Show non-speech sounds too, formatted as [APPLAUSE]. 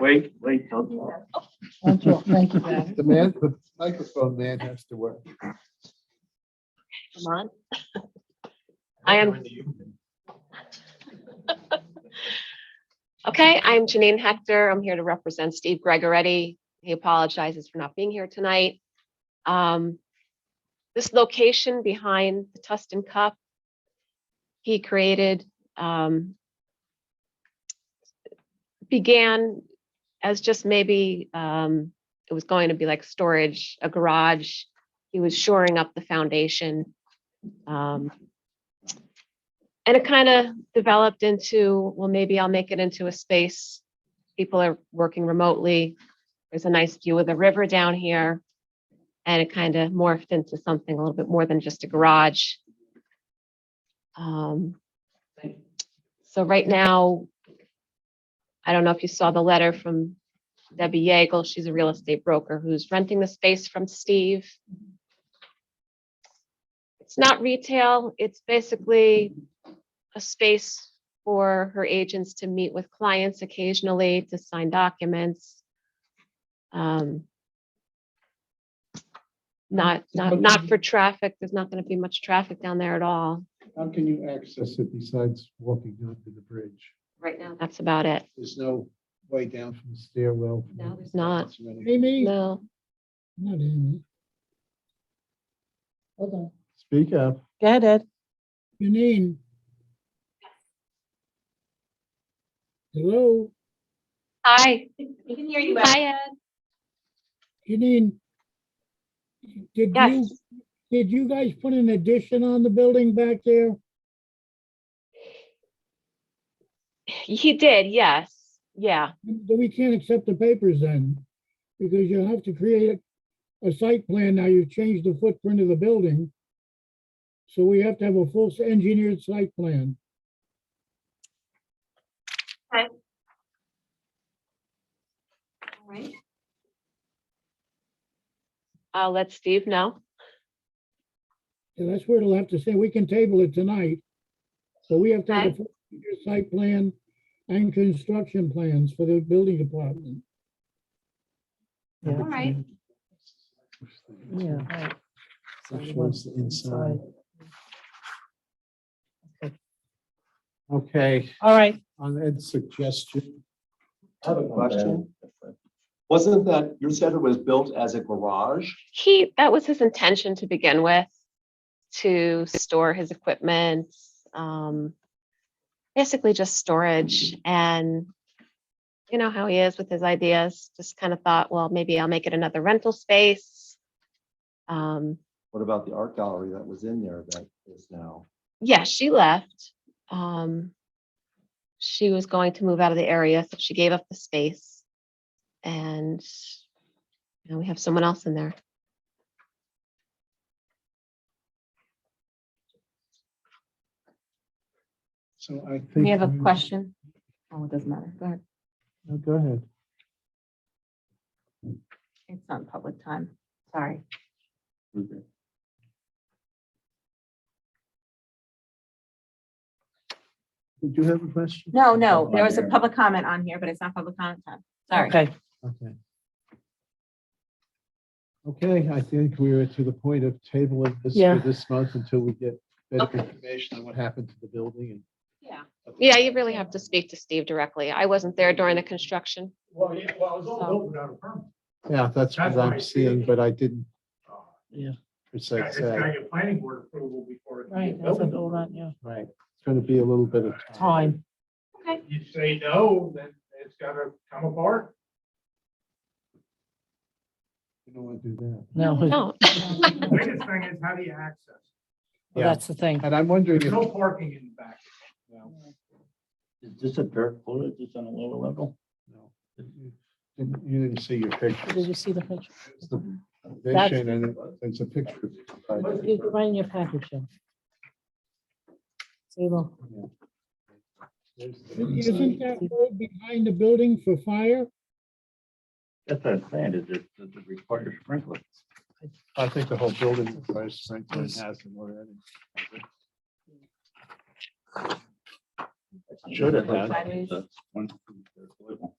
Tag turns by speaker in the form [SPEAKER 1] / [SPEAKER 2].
[SPEAKER 1] Wait, wait, don't talk.
[SPEAKER 2] Don't talk. Thank you, Dan.
[SPEAKER 3] The man, the microphone man has to work.
[SPEAKER 4] Come on. I am. Okay, I'm Janine Hector. I'm here to represent Steve Gregoretti. He apologizes for not being here tonight. Um, This location behind the Tustin Cup, he created, um, began as just maybe, um, it was going to be like storage, a garage. He was shoring up the foundation. Um, and it kind of developed into, well, maybe I'll make it into a space. People are working remotely. There's a nice view of the river down here. And it kind of morphed into something a little bit more than just a garage. Um, So right now, I don't know if you saw the letter from Debbie Yeagle. She's a real estate broker who's renting the space from Steve. It's not retail. It's basically a space for her agents to meet with clients occasionally to sign documents. Um, Not, not, not for traffic. There's not going to be much traffic down there at all.
[SPEAKER 3] How can you access it besides walking onto the bridge?
[SPEAKER 4] Right now. That's about it.
[SPEAKER 3] There's no way down from the stairwell.
[SPEAKER 4] No, there's not.
[SPEAKER 3] It's really-
[SPEAKER 2] Amy?
[SPEAKER 4] No,
[SPEAKER 2] Not Amy. Hold on.
[SPEAKER 3] Speak up.
[SPEAKER 5] Go ahead, Ed.
[SPEAKER 2] Janine? Hello?
[SPEAKER 4] hi,
[SPEAKER 6] We can hear you.
[SPEAKER 4] hi, Ed.
[SPEAKER 2] Janine? Did you,
[SPEAKER 4] Yes,
[SPEAKER 2] did you guys put an addition on the building back there?
[SPEAKER 4] he did, yes, yeah.
[SPEAKER 2] Then we can't accept the papers then, because you'll have to create a site plan now. You've changed the footprint of the building. So we have to have a full engineered site plan.
[SPEAKER 6] All right.
[SPEAKER 4] I'll let Steve know.
[SPEAKER 2] And that's where it'll have to say, we can table it tonight. So we have to have a
[SPEAKER 4] Okay.
[SPEAKER 2] full engineered site plan and construction plans for the building department.
[SPEAKER 6] All right.
[SPEAKER 5] Yeah.
[SPEAKER 3] Which one's the inside? Okay,
[SPEAKER 5] All right,
[SPEAKER 3] on Ed's suggestion.
[SPEAKER 7] I have a question. Wasn't that, you said it was built as a garage?
[SPEAKER 4] He, that was his intention to begin with, to store his equipment, um, basically just storage and you know how he is with his ideas, just kind of thought, well, maybe I'll make it another rental space. Um,
[SPEAKER 7] What about the art gallery that was in there that is now?
[SPEAKER 4] yeah, she left. Um, she was going to move out of the area, so she gave up the space. And now we have someone else in there.
[SPEAKER 3] So I think.
[SPEAKER 8] We have a question. Oh, it doesn't matter. Go ahead.
[SPEAKER 3] No, Go ahead.
[SPEAKER 8] It's not public time. Sorry.
[SPEAKER 3] Did you have a question?
[SPEAKER 8] No, no, there was a public comment on here, but it's not public comment time. Sorry.
[SPEAKER 5] okay.
[SPEAKER 3] Okay. Okay, I think we're to the point of tabling this
[SPEAKER 5] Yeah.
[SPEAKER 3] for this month until we get better
[SPEAKER 4] Okay.
[SPEAKER 3] information on what happened to the building
[SPEAKER 4] Yeah.
[SPEAKER 3] and.
[SPEAKER 4] Yeah, you really have to speak to Steve directly. I wasn't there during the construction.
[SPEAKER 9] Well, yeah, well, it was all
[SPEAKER 4] So-
[SPEAKER 9] built without a permit.
[SPEAKER 3] Yeah, that's
[SPEAKER 9] That's
[SPEAKER 3] what
[SPEAKER 9] why I
[SPEAKER 3] I'm
[SPEAKER 9] see it.
[SPEAKER 3] seeing, but I didn't
[SPEAKER 5] Yeah.
[SPEAKER 3] per se
[SPEAKER 9] It's
[SPEAKER 3] say.
[SPEAKER 9] got your planning board approval before. it can be
[SPEAKER 5] Right, that's
[SPEAKER 9] built.
[SPEAKER 5] all that, yeah.
[SPEAKER 3] Right, it's gonna be a little bit of time.
[SPEAKER 5] Time.
[SPEAKER 9] You say no, then it's gotta come apart.
[SPEAKER 3] You don't wanna do that.
[SPEAKER 5] [LAUGHS] No,
[SPEAKER 4] No,
[SPEAKER 9] The biggest thing is how do you access? it?
[SPEAKER 3] Yeah,
[SPEAKER 5] that's the thing.
[SPEAKER 3] and I'm wondering
[SPEAKER 9] There's
[SPEAKER 3] if,
[SPEAKER 9] no parking in the back. No.
[SPEAKER 10] Is this a dirt floor? Is this on a lower level?
[SPEAKER 3] no, you didn't- you didn't see your
[SPEAKER 5] Did
[SPEAKER 3] pictures.
[SPEAKER 5] you see the picture?
[SPEAKER 3] It's the foundation and it- there's a picture. of it.
[SPEAKER 5] It's right in your package. yeah. So you will-
[SPEAKER 3] There's the
[SPEAKER 2] Isn't
[SPEAKER 3] inside.
[SPEAKER 2] that road behind the building for fire?
[SPEAKER 10] That's what I'm saying, is it, does it require sprinklers?
[SPEAKER 3] I think the whole building requires sprinkling has them already. Should have had.
[SPEAKER 10] It's a one- it's a level.